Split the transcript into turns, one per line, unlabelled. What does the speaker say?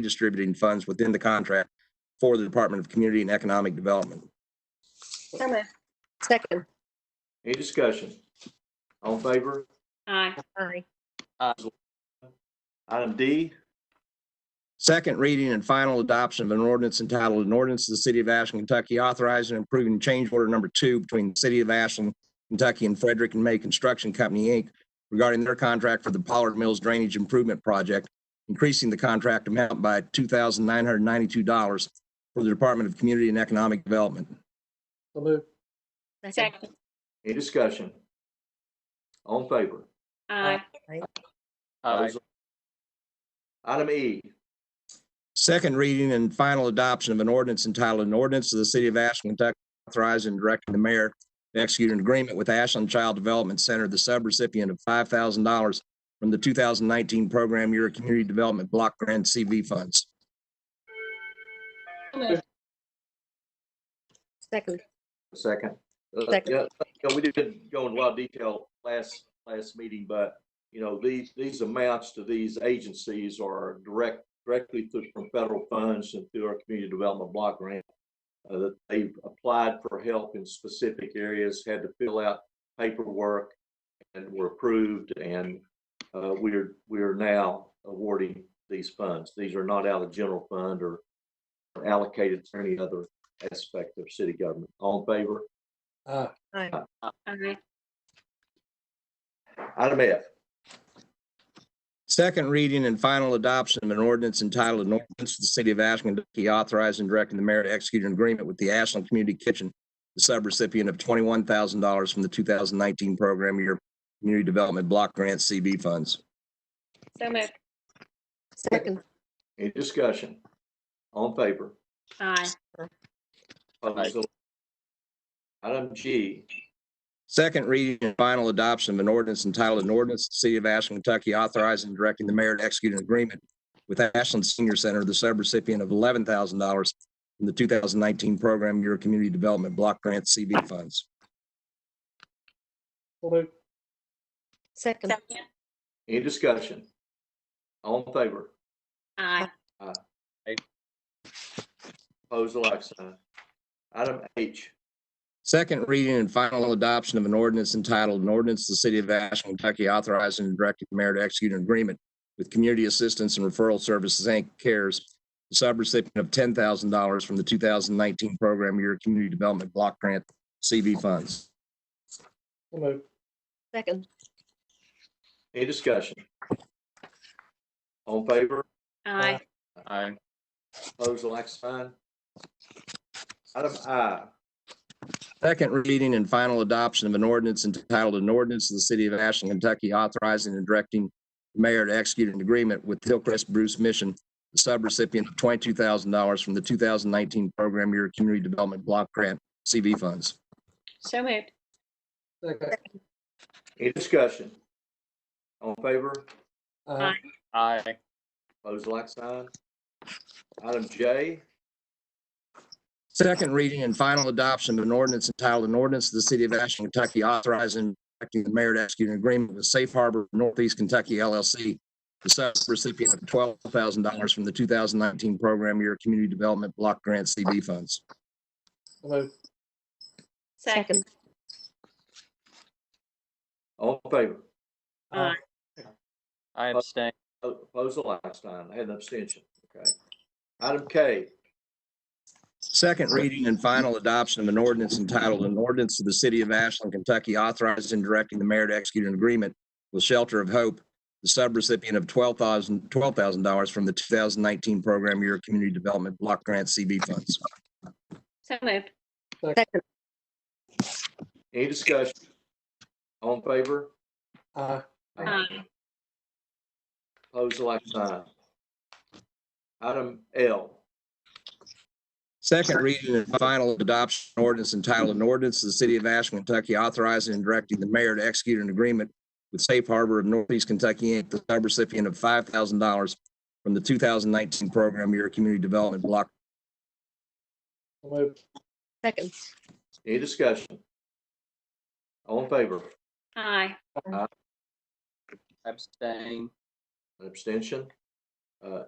redistributing funds within the contract for the Department of Community and Economic Development.
So moved. Second.
Any discussion? All in favor?
Aye.
Aye.
Item D,
Second reading and final adoption of an ordinance entitled, an ordinance of the City of Ashland, Kentucky authorizing and approving change order number two between the City of Ashland, Kentucky and Frederick and May Construction Company, Inc. regarding their contract for the Pollard Mills Drainage Improvement Project, increasing the contract amount by two thousand nine hundred ninety-two dollars for the Department of Community and Economic Development.
So moved.
Second.
Second.
any discussion? All in favor?
Aye.
Aye.
Those- Item E,
Second reading and final adoption of an ordinance entitled an ordinance of the city of Ashland, Kentucky authorizing and directing the mayor to execute an agreement with Ashland Child Development Center, the subrecipient of five thousand dollars from the two thousand nineteen program year community development block grant CV funds.
So moved.
Second.
a second. Uh,
Second.
yeah, yeah, We didn't go into a lot of detail last, last meeting, but, you know, these, these amounts to these agencies are direct, directly through from federal funds and through our community development block grant. uh, that they applied for help in specific areas, had to fill out paperwork and were approved and uh, we're, we're now awarding these funds. These are not out of general fund or or allocated to any other aspect of city government. All in favor?
Aye.
Aye.
Aye.
Item F,
Second reading and final adoption of an ordinance entitled an ordinance of the city of Ashland, Kentucky authorizing and directing the mayor to execute an agreement with the Ashland Community Kitchen, the subrecipient of twenty-one thousand dollars from the two thousand nineteen program year community development block grant CV funds.
So moved.
Second.
any discussion? All in favor?
Aye.
Opposed? So- Item G,
Second reading and final adoption of an ordinance entitled an ordinance, to the City of Ashland, Kentucky authorizing and directing the mayor to execute an agreement with Ashland Senior Center, the subrecipient of eleven thousand dollars from the two thousand nineteen program year community development block grant CV funds.
So moved.
Second.
Second.
any discussion? All in favor?
Aye.
Opposed, the like sign. Item H,
Second reading and final adoption of an ordinance entitled an ordinance, to the City of Ashland, Kentucky authorizing and directing the mayor to execute an agreement with Community Assistance and Referral Services, Inc. CARES, the subrecipient of ten thousand dollars from the two thousand nineteen program year community development block grant CV funds.
So moved.
Second.
any discussion? All in favor?
Aye.
Opposed, the like sign. Item I,
Second reading and final adoption of an ordinance entitled an ordinance of the city of Ashland, Kentucky authorizing and directing the mayor to execute an agreement with Hillcrest Bruce Mission, the subrecipient of twenty-two thousand dollars from the two thousand nineteen program year community development block grant CV funds.
So moved.
Second.
any discussion? All in favor?
Aye.
Aye.
Opposed, the like sign. Item J,
Second reading and final adoption of an ordinance entitled an ordinance of the city of Ashland, Kentucky authorizing and directing the mayor to execute an agreement with Safe Harbor Northeast Kentucky LLC, the subrecipient of twelve thousand dollars from the two thousand nineteen program year community development block grant CB funds.
So moved.
Second.
all in favor?
Aye.
I abstain.
Oppose the like sign. I had an abstention. Okay. Item K,
Second reading and final adoption of an ordinance entitled an ordinance of the city of Ashland, Kentucky authorizing and directing the mayor to execute an agreement with Shelter of Hope, the subrecipient of twelve thousand, twelve thousand dollars from the two thousand nineteen program year community development block grant CB funds.
So moved.
Second.
any discussion? All in favor?
Aye.
Aye.
Oppose the like sign. Item L,
Second reading and final adoption ordinance entitled an ordinance of the city of Ashland, Kentucky authorizing and directing the mayor to execute an agreement with Safe Harbor of Northeast Kentucky, Inc., the subrecipient of five thousand dollars from the two thousand nineteen program year community development block
So moved.
Second.
any discussion? All in favor?
Aye.
Abstain.
An abstention? Uh,